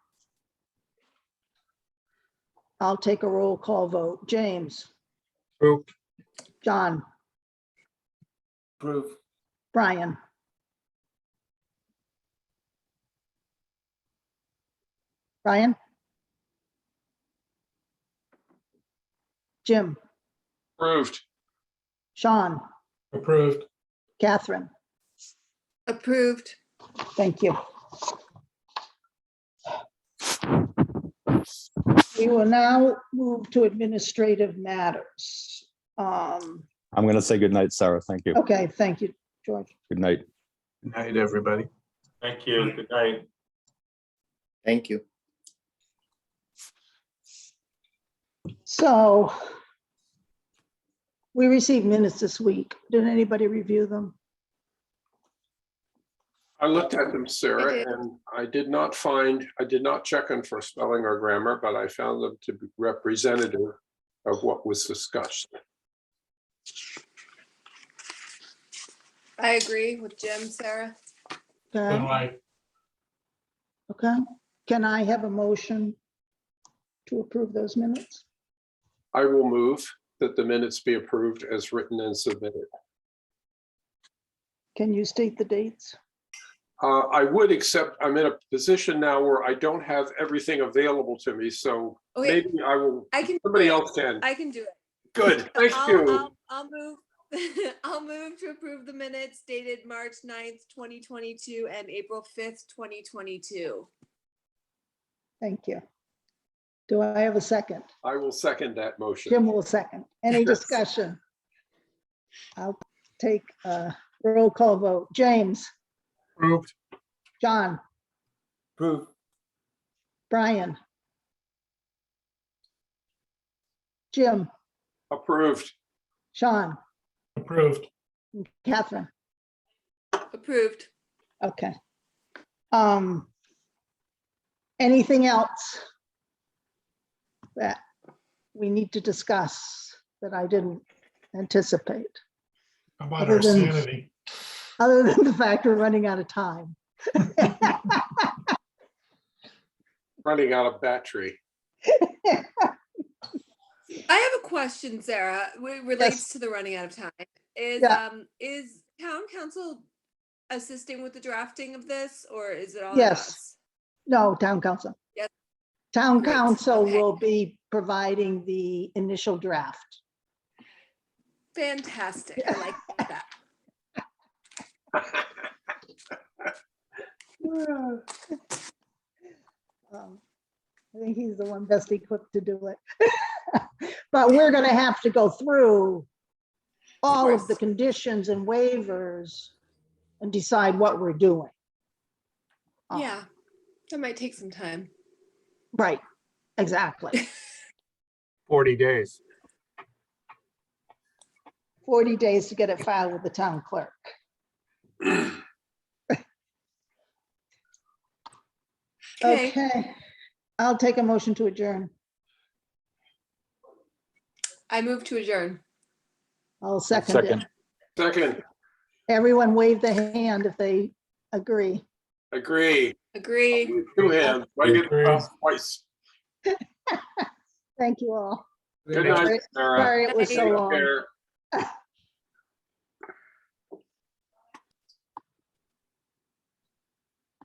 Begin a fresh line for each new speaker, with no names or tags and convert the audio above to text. I'll take a roll call vote. James,
Approve.
John,
Approve.
Brian, Brian? Jim,
Approved.
Sean,
Approved.
Catherine,
Approved.
thank you. We will now move to administrative matters. Um,
I'm going to say good night, Sarah. Thank you.
Okay, thank you, George.
Good night.
Night, everybody.
Thank you. Good night.
Thank you.
So we received minutes this week. Did anybody review them?
I looked at them,
I
Sarah,
did.
and I did not find, I did not check them for spelling or grammar, but I found them to be representative of what was discussed.
I agree with Jim, Sarah.
Okay,
night.
okay. Can I have a motion to approve those minutes?
I will move that the minutes be approved as written and submitted.
Can you state the dates?
Uh, I would accept, I'm in a position now where I don't have everything available to me, so
Okay,
maybe I will,
Oh, I can. do
somebody
it.
else can.
I can do it.
Good,
So
thank
I'll-
you.
I'll- I'll move, I'll move to approve the minutes dated March 9th, twenty twenty-two and April fifth, twenty twenty-two.
Thank you. Do I have a second?
I will second that motion.
Jim will second. Any discussion? I'll take a roll call vote. James,
Approved.
John,
Approved.
Brian. Jim,
Approved.
Sean,
Approved.
Catherine.
Approved.
Okay. Um, anything else that we need to discuss that I didn't anticipate,
How About
Other
our
than-
sanity.
other than the fact we're running out of time?
Running out of battery.
I have a question, Sarah, which relates to the running out of time. Is,
Yeah.
um, is town council assisting with the drafting of this or is it all? on
Yes.
us?
No, town council.
Yes.
Town
Great,
council
okay.
will be providing the initial draft.
Fantastic. I like that.
Um, I think he's the one best equipped to do it. But we're gonna have to go through all of the
course.
conditions and waivers and decide what we're doing. Um,
Yeah. That might take some time.
Right, exactly.
Forty days.
40 days to get it filed with the town clerk.
Okay.
Okay, I'll take a motion to adjourn.
I move to adjourn.
I'll second it.
Second.
Second,
Everyone wave the hand if they agree.
agree.
Agree.
Two hands, I get
Agree.
it twice.
Thank you all.
Good night, Sarah.
Sorry it was so
Take
long.
care.